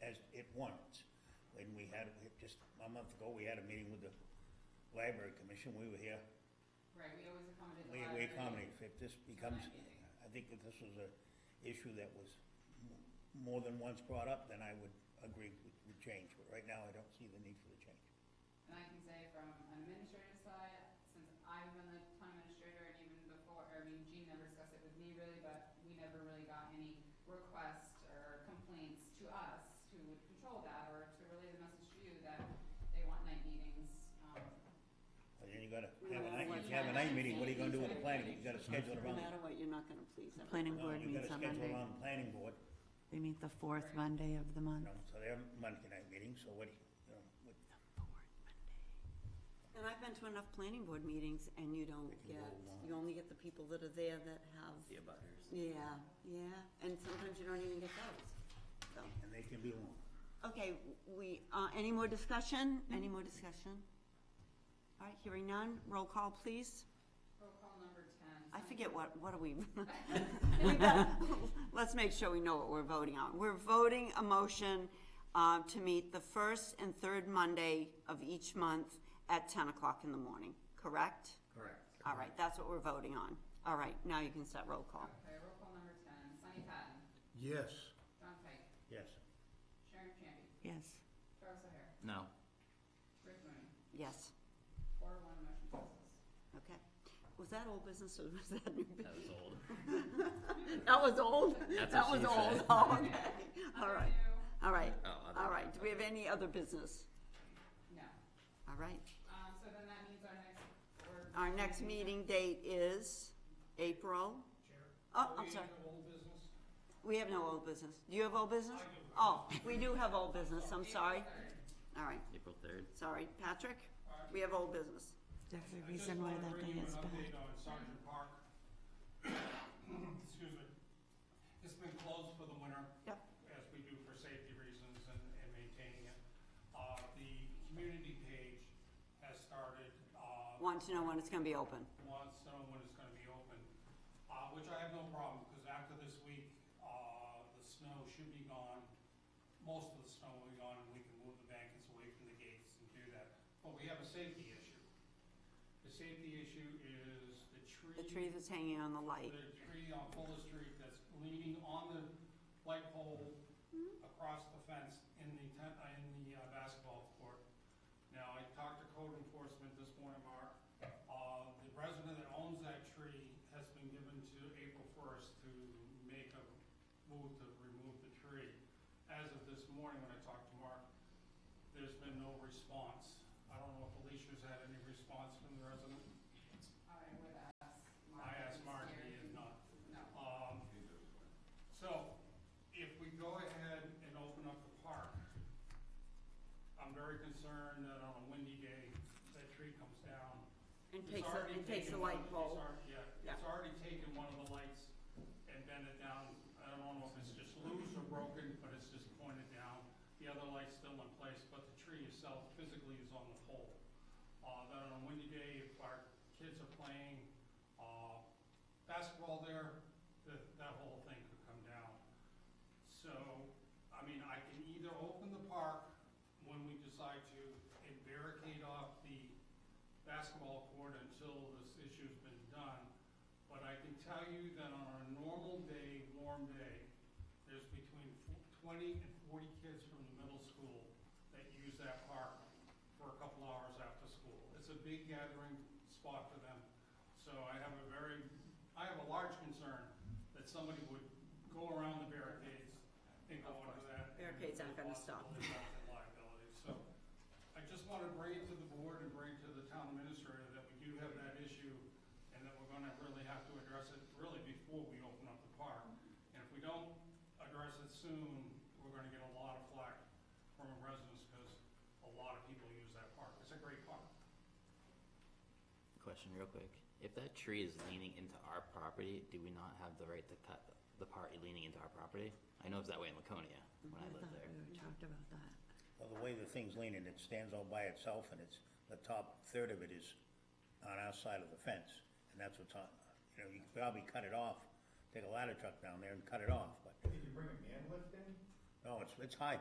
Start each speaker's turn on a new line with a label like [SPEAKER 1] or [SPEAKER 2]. [SPEAKER 1] just at once. When we had, we just, a month ago, we had a meeting with the library commission, we were here,
[SPEAKER 2] Right, we always accommodate the
[SPEAKER 1] we, we
[SPEAKER 2] library.
[SPEAKER 1] accommodated, if this becomes,
[SPEAKER 2] meeting.
[SPEAKER 1] I think that this was a issue that was m- more than once brought up, then I would agree with, with change, but right now, I don't see the need for the change.
[SPEAKER 2] And I can say from an administrative side, since I've been the town administrator and even before, I mean, Gene never discussed it with me really, but we never really got any requests or complaints to us who would control that or to relay the message to you that they want night meetings, um,
[SPEAKER 1] But then you gotta
[SPEAKER 3] No
[SPEAKER 1] have a
[SPEAKER 3] matter
[SPEAKER 1] night,
[SPEAKER 3] what
[SPEAKER 1] you have a night
[SPEAKER 2] happens,
[SPEAKER 1] meeting, what are you gonna do with the planning, you
[SPEAKER 3] everybody's
[SPEAKER 1] gotta schedule it
[SPEAKER 3] No
[SPEAKER 1] around.
[SPEAKER 3] matter what, you're not gonna please everyone.
[SPEAKER 4] Planning board
[SPEAKER 1] You
[SPEAKER 4] meets on
[SPEAKER 1] gotta schedule
[SPEAKER 4] Monday.
[SPEAKER 1] around the planning board,
[SPEAKER 4] They meet the fourth Monday of the
[SPEAKER 1] you
[SPEAKER 4] month.
[SPEAKER 1] know, so they're Monday night meetings, so what, do you you know, what,
[SPEAKER 3] And I've been to enough planning board meetings and you don't
[SPEAKER 1] can
[SPEAKER 3] get,
[SPEAKER 1] go along.
[SPEAKER 3] you only get the people that are there that have.
[SPEAKER 5] The abutters.
[SPEAKER 3] Yeah, yeah, and sometimes you don't even get those, so.
[SPEAKER 1] and they can be long.
[SPEAKER 3] Okay, we, uh, any more discussion? Any more discussion? All right, hearing none, roll call, please.
[SPEAKER 2] roll call number ten.
[SPEAKER 3] I forget what, what are we? We got- Let's make sure we know what we're voting on. We're voting a motion, um, to meet the first and third Monday of each month at ten o'clock in the morning, correct?
[SPEAKER 5] Correct.
[SPEAKER 3] All right, that's what we're voting on. All right, now you can start roll call.
[SPEAKER 2] Okay, roll call number ten, Sunny Patton,
[SPEAKER 6] Yes.
[SPEAKER 2] John Pike,
[SPEAKER 1] Yes.
[SPEAKER 2] Sharon Champion,
[SPEAKER 4] Yes.
[SPEAKER 2] Charles O'Hare,
[SPEAKER 5] No.
[SPEAKER 2] Rick Mooney,
[SPEAKER 3] Yes,
[SPEAKER 2] four to one motion passes.
[SPEAKER 3] okay. Was that old business or was that new business?
[SPEAKER 5] That was old.
[SPEAKER 3] That was old?
[SPEAKER 5] That's
[SPEAKER 3] That was
[SPEAKER 5] what she
[SPEAKER 3] old,
[SPEAKER 5] said.
[SPEAKER 3] oh, okay. All right,
[SPEAKER 2] Number
[SPEAKER 3] all right,
[SPEAKER 5] Oh, other-
[SPEAKER 3] all right. Do we have any other business?
[SPEAKER 2] two, No,
[SPEAKER 3] All right.
[SPEAKER 2] um, so then that means our next, or.
[SPEAKER 3] Our next meeting date is April? Oh, I'm sorry. We have no old business. Do you have old business? Oh, we do have old business, I'm sorry. All right,
[SPEAKER 5] April third.
[SPEAKER 3] sorry. Patrick, we have old business.
[SPEAKER 4] There's a reason why that day is bad.
[SPEAKER 7] I just wanted to bring you an update on Sergeant Park. Excuse me. It's been closed for the winter.
[SPEAKER 3] Yep.
[SPEAKER 7] As we do for safety reasons and, and maintaining it. Uh, the community page has started, uh,
[SPEAKER 3] Want to know when it's gonna be open.
[SPEAKER 7] wants to know when it's gonna be open, uh, which I have no problem, because after this week, uh, the snow should be gone. Most of the snow will be gone, and we can move the bankings away from the gates and do that. But we have a safety issue. The safety issue is the tree.
[SPEAKER 3] The tree that's hanging on the light.
[SPEAKER 7] The tree on Fuller Street that's leaning on the light pole across the fence in the ten, uh, in the uh, basketball court. Now, I talked to code enforcement this morning, Mark. Uh, the resident that owns that tree has been given to April first to make a move to remove the tree. As of this morning, when I talked to Mark, there's been no response. I don't know if Alicia's had any response from the resident.
[SPEAKER 2] I would ask Mark.
[SPEAKER 7] I
[SPEAKER 2] if
[SPEAKER 7] asked
[SPEAKER 2] he's
[SPEAKER 7] Mark, he
[SPEAKER 2] here.
[SPEAKER 7] is not.
[SPEAKER 2] No.
[SPEAKER 7] Um, so, if we go ahead and open up the park, I'm very concerned that on a windy day, that tree comes down.
[SPEAKER 3] And
[SPEAKER 7] It's
[SPEAKER 3] takes, the-
[SPEAKER 7] already
[SPEAKER 3] and takes the
[SPEAKER 7] taken one of
[SPEAKER 3] light
[SPEAKER 7] the-
[SPEAKER 3] pole.
[SPEAKER 7] It's already, yeah,
[SPEAKER 3] Yeah.
[SPEAKER 7] it's already taken one of the lights and bent it down. I don't know if it's just loose or broken, but it's just pointed down. The other light's still in place, but the tree itself physically is on the pole. Uh, then on a windy day, if our kids are playing, uh, basketball there, that, that whole thing could come down. So, I mean, I can either open the park when we decide to and barricade off the basketball court until this issue's been done. But I can tell you that on a normal day, warm day, there's between fo- twenty and forty kids from the middle school that use that park for a couple hours after school. It's a big gathering spot for them. So I have a very, I have a large concern that somebody would go around the barricades and go into that. and
[SPEAKER 3] Barricades aren't gonna stop.
[SPEAKER 7] possibly have the liability. So I just want to bring it to the board and bring it to the town administrator that we do have that issue and that we're gonna really have to address it really before we open up the park. And if we don't address it soon, we're gonna get a lot of flack from residents because a lot of people use that park. It's a great park.
[SPEAKER 5] Question real quick. If that tree is leaning into our property, do we not have the right to cut the part leaning into our property? I know it's that way in Laconia when I
[SPEAKER 4] I
[SPEAKER 5] lived
[SPEAKER 4] thought
[SPEAKER 5] there.
[SPEAKER 4] we were talked about that.
[SPEAKER 1] Well, the way the thing's leaning, it stands all by itself, and it's, the top third of it is on our side of the fence, and that's what's on, you know, you could probably cut it off, take a ladder truck down there and cut it off, but,
[SPEAKER 6] Did you bring a man lift in?
[SPEAKER 1] no, it's, it's high,